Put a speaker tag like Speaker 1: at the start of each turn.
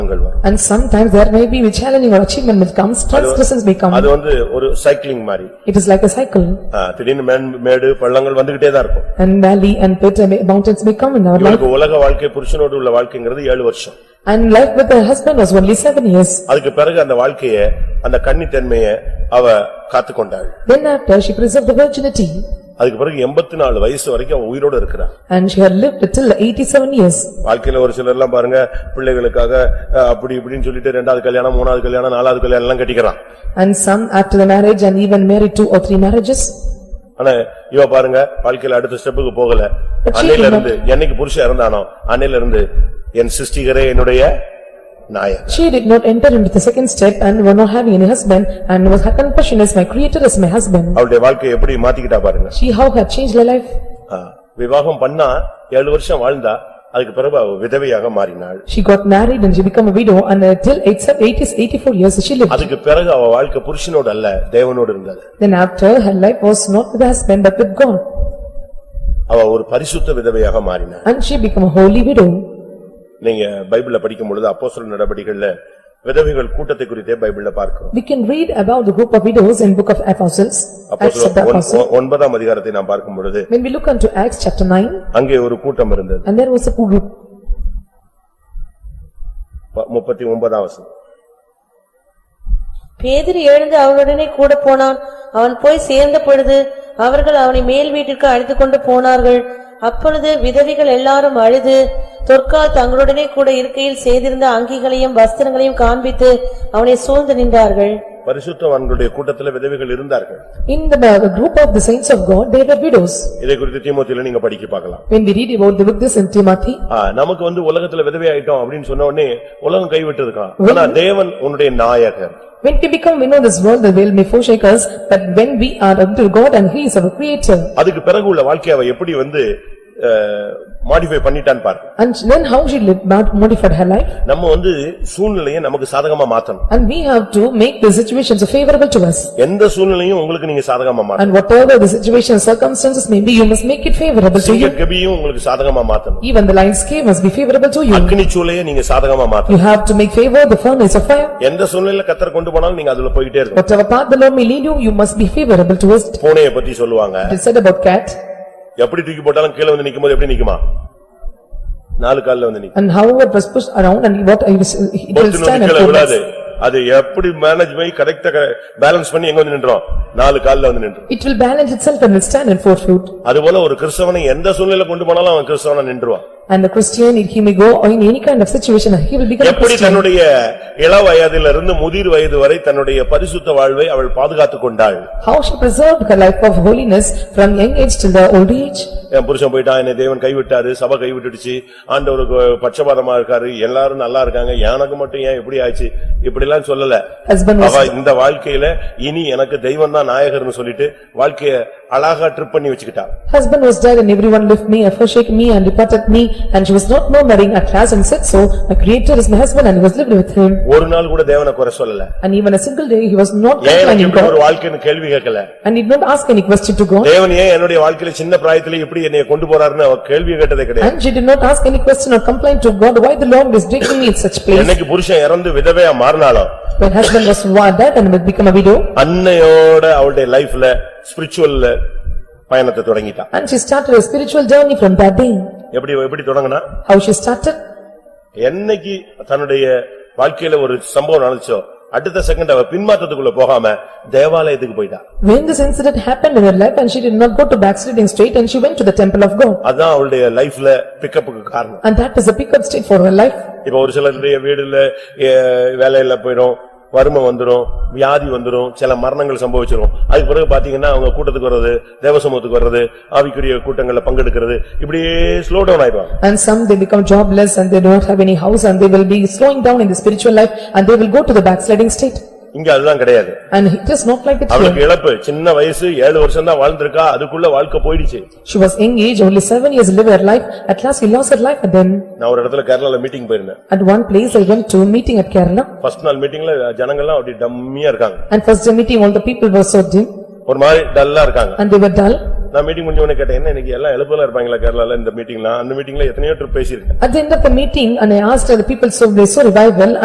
Speaker 1: சவால்கள் வரும்
Speaker 2: And sometimes there may be challenging or achievement which comes, transgressions may come.
Speaker 1: அது வந்து ஒரு சைக்கிளிங் மாதிரி
Speaker 2: It is like a cycle.
Speaker 1: ஆ, திடீர்னு மேன்- மேடு பள்ளங்கள் வந்துகிட்டே தான் இருக்கும்
Speaker 2: And valley and pit and mountains may come in our life.
Speaker 1: இவளுக்கு உலக வாழ்க்கை புருஷனோடு உள்ள வாழ்க்கைங்கிறது ஏழு வருஷம்
Speaker 2: And life with her husband was only seven years.
Speaker 1: அதுக்கு பிறகு அந்த வாழ்க்கைய அந்த கன்னித்தன்மைய அவ காத்துக்கொண்டாள்
Speaker 2: Then after she preserved the virginity
Speaker 1: அதுக்கு பிறகு எண்பத்தி நாலு வயசு வரைக்கும் அவ உயிரோட இருக்கிறா
Speaker 2: and she had lived till eighty-seven years.
Speaker 1: வாழ்க்கையில ஒரு சிலர் எல்லாம் பாருங்க பிள்ளைகளுக்காக அஹ், அப்படி இப்படின்னு சொல்லிட்டு ரெண்டாவது கல்யாணம் மூணாவது கல்யாணம் நாலாவது கல்யாணம் எல்லாம் கட்டிக்கிறான்
Speaker 2: And some after the marriage and even married two or three marriages.
Speaker 1: ஆனா இவ பாருங்க வாழ்க்கையில அடுத்த ஸ்டெப்புக்கு போகல அன்னையில இருந்து என்னைக்கு புருஷன் இறந்தானோ அன்னையில இருந்து என் சிருஷ்டிகரே என்னுடைய Nair
Speaker 2: She did not enter into the second step and were not having any husband and was her confession is my creator is my husband.
Speaker 1: அவளுடைய வாழ்க்கையை எப்படி மாத்திக்கிட்டா பாருங்க
Speaker 2: She how had changed her life.
Speaker 1: ஆ, விவாகம் பண்ணா ஏழு வருஷம் வாழ்ந்தா அதுக்கு பிறகு அவ விதவையாக மாறினாள்
Speaker 2: She got married and she became a widow and uh, till eight- eighties- eighty-four years she lived.
Speaker 1: அதுக்கு பிறகு அவ வாழ்க்கை புருஷனோடு அல்ல தேவனோடு இருந்தது
Speaker 2: Then after her life was not with her husband but with God
Speaker 1: அவ ஒரு பரிசுத்த விதவையாக மாறினாள்
Speaker 2: and she became a holy widow.
Speaker 1: நீங்க பைபிள்ல படிக்கும் பொழுது அப்போஸ்தலர் நடபடிகள்ல விதவைகள் கூட்டத்தை குறித்தே பைபிள்ல பார்க்கிறோம்
Speaker 2: We can read about the group of widows in book of Apostles. Acts of the
Speaker 1: அப்போஸ்தலர்
Speaker 2: Apostles.
Speaker 1: ஒன்- ஒன்பதாம் அதிகாரத்தை நாம் பார்க்கும் பொழுது
Speaker 2: When we look unto Acts chapter nine
Speaker 1: அங்கே ஒரு கூட்டம் இருந்தது
Speaker 2: and there was a group
Speaker 1: ப- முப்பத்தி ஒன்பதாம் வசனம்
Speaker 3: பேதுரு எழுந்து அவனுடனே கூட போனான் அவன் போய் சேர்ந்த பொழுது அவர்கள் அவனை மேல் வீட்டிற்கு அழைத்துக்கொண்டு போனார்கள் அப்பொழுது விதவைகள் எல்லாரும் அழுது தொற்கால் தங்களுடனே கூட இருக்கையில் செய்திருந்த அங்கிகளையும் வஸ்திரங்களையும் காண்பித்து அவனை சூழ்ந்து நின்றார்கள்
Speaker 1: பரிசுத்தவான்களுடைய கூட்டத்துல விதவைகள் இருந்தார்கள்
Speaker 2: In the uh, group of the saints of God, they were widows.
Speaker 1: இதை குறித்து தீமோத்தில நீங்க படிக்க பார்க்கலாம்
Speaker 2: When we read about the book this in Timothy,
Speaker 1: ஆ, நமக்கு வந்து உலகத்துல விதவை ஆயிட்டோம் அப்படின்னு சொன்ன உடனே உலகம் கைவிட்டதுக்கான் ஆனா தேவன் உன்னுடைய நாயகர்
Speaker 2: when we become, we know this world, the will may forsake us, but when we are unto God and He is our creator.
Speaker 1: அதுக்கு பிறகு உள்ள வாழ்க்கையை அவ எப்படி வந்து மாடிஃபை பண்ணிட்டான்னு பாரு
Speaker 2: And then how she lived, mod- modified her life,
Speaker 1: நம்ம வந்து சூழ்நிலையை நமக்கு சாதகமா மாத்தணும்
Speaker 2: and we have to make the situations favorable to us.
Speaker 1: எந்த சூழ்நிலையும் உங்களுக்கு நீங்க சாதகமா மாத்தணும்
Speaker 2: And whatever the situation, circumstances may be, you must make it favorable to
Speaker 1: சிங்க
Speaker 2: you.
Speaker 1: கபியும் உங்களுக்கு சாதகமா மாத்தணும்
Speaker 2: Even the lion's cave must be favorable to you.
Speaker 1: அக்னி சூளையை நீங்க சாதகமா மாத்தணும்
Speaker 2: You have to make favor the furnace of fire.
Speaker 1: எந்த சூழ்நிலையில கத்தர் கொண்டு போனாலும் நீங்க அதுல போயிட்டே இருக்கணும்
Speaker 2: Whatever path the Lord may lead you, you must be favorable to us.
Speaker 1: பூனையை பத்தி சொல்லுவாங்க
Speaker 2: It is said about cat,
Speaker 1: எப்படி தூக்கி போட்டாலும் கீழே வந்து நிக்கும்போது எப்படி நிக்குமா நாலு கால்ல வந்து நிக்கும்
Speaker 2: and however it was pushed around, and what I was- it will
Speaker 1: பொத்து
Speaker 2: stand and
Speaker 1: கீழே
Speaker 2: collapse.
Speaker 1: விடாது அது எப்படி மேனேஜ் பண்ணி கரெக்டா பேலன்ஸ் பண்ணி எங்க வந்து நின்றோம் நாலு கால்ல வந்து நின்றோம்
Speaker 2: It will balance itself and will stand and four foot.
Speaker 1: அதுபோல ஒரு கிறிஸ்தவனை எந்த சூழ்நிலையில கொண்டு போனாலும் அவன் கிறிஸ்தவனா நின்றுவான்
Speaker 2: And the Christian, he may go or in any kind of situation, he will become a
Speaker 1: எப்படி
Speaker 2: Christian.
Speaker 1: தன்னுடைய இள வயதிலிருந்து முதிர் வயது வரை தன்னுடைய பரிசுத்த வாழ்வை அவள் பாதுகாத்துக் கொண்டாள்
Speaker 2: How she preserved her life of holiness from young age till the old age.
Speaker 1: என் புருஷன் போயிட்டான் என்னை தேவன் கைவிட்டாரு சபை கைவிட்டுடுச்சு ஆண்டவருக்கு பட்சபாதமா இருக்காரு எல்லாரும் நல்லா இருக்காங்க எனக்கு மட்டும் ஏன் இப்படி ஆச்சு இப்படி எல்லாம் சொல்லல
Speaker 2: Husband was,
Speaker 1: அவ இந்த வாழ்க்கையில இனி எனக்கு தெய்வம் தான் நாயகர்னு சொல்லிட்டு வாழ்க்கைய அழகா ட்ரிப் பண்ணி வச்சுக்கிட்டா
Speaker 2: husband was dead and everyone left me, and forsake me and departed me, and she was not more marrying at last and said so, my creator is my husband and he was lived with him.
Speaker 1: ஒரு நாள் கூட தேவனை குறை சொல்லல
Speaker 2: And even a single day, he was not
Speaker 1: ஏன் எனக்கு
Speaker 2: complaining
Speaker 1: இப்படி
Speaker 2: God
Speaker 1: ஒரு வாழ்க்கைன்னு கேள்வி கேட்கல
Speaker 2: and did not ask any question to God.
Speaker 1: தேவன் ஏன் என்னுடைய வாழ்க்கையில சின்ன பிராயத்துல இப்படி என்னைய கொண்டு போறாருன்னு அவ கேள்வி கேட்டதே கிடையாது
Speaker 2: And she did not ask any question or complain to God, why the Lord is taking me in such place?
Speaker 1: என்னைக்கு புருஷன் இறந்து விதவையா மாறினாலோ
Speaker 2: When husband was wa- dead and had become a widow,
Speaker 1: அன்னையோட அவளுடைய லைஃப்ல ஸ்பிரிச்சுவல்ல பயணத்தை தொடங்கிட்டா
Speaker 2: and she started a spiritual journey from that day.
Speaker 1: எப்படி எப்படி தொடங்கினா
Speaker 2: How she started?
Speaker 1: என்னைக்கு தன்னுடைய வாழ்க்கையில ஒரு சம்பவம் நடந்துச்சோ அடுத்த செகண்ட் அவ பின்மாற்றத்துக்குள்ள போகாம தேவாலயத்துக்கு போயிட்டா
Speaker 2: When this incident happened in her life and she did not go to backsliding straight and she went to the temple of God.
Speaker 1: அதான் அவளுடைய லைஃப்ல பிக்கப்புக்கு காரணம்
Speaker 2: And that is a pickup state for her life.
Speaker 1: இப்ப ஒரு சிலருடைய வீடுல ஏ, வேலையில போயிடும் வறுமை வந்துரும் வியாதி வந்துரும் சில மரணங்கள் சம்பவிச்சிரும் அதுக்கு பிறகு பாத்தீங்கன்னா அவங்க கூட்டத்துக்கு வர்றது தேவசமூகத்துக்கு வர்றது ஆவிக்குரிய கூட்டங்கள்ல பங்கெடுக்கிறது இப்படியே ஸ்லோ டவுன் ஆயிடுவாங்க
Speaker 2: And some they become jobless and they don't have any house and they will be slowing down in the spiritual life and they will go to the backsliding state.
Speaker 1: இங்க அதுதான் கிடையாது
Speaker 2: And it is not like it
Speaker 1: அவளுக்கு
Speaker 2: here.
Speaker 1: இழப்பு சின்ன வயசு ஏழு வருஷம் தான் வாழ்ந்திருக்கா அதுக்குள்ள வாழ்க்கை போயிடுச்சு
Speaker 2: She was young age, only seven years lived her life. At last she lost her life and then
Speaker 1: நான் ஒரு இடத்துல கேரளால மீட்டிங் போயிருந்தேன்
Speaker 2: at one place I went to a meeting at Kerala.
Speaker 1: First நாள் மீட்டிங்ல ஜனங்கள்லாம் அப்படி டம்மியா இருக்காங்க
Speaker 2: And first day meeting, all the people were so dim
Speaker 1: ஒரு மாதிரி டல்லா இருக்காங்க
Speaker 2: and they were dull.
Speaker 1: நான் மீட்டிங் முடிஞ்ச உடனே கேட்டேன் என்ன இன்னைக்கு எல்லாம் எழுப்பலா இருப்பாங்களா கேரளால இந்த மீட்டிங்லாம் அந்த மீட்டிங்ல எத்தனையோ ட்ரிப் பேசியிருக்கேன்
Speaker 2: At the end of the meeting and I asked the people so they so revival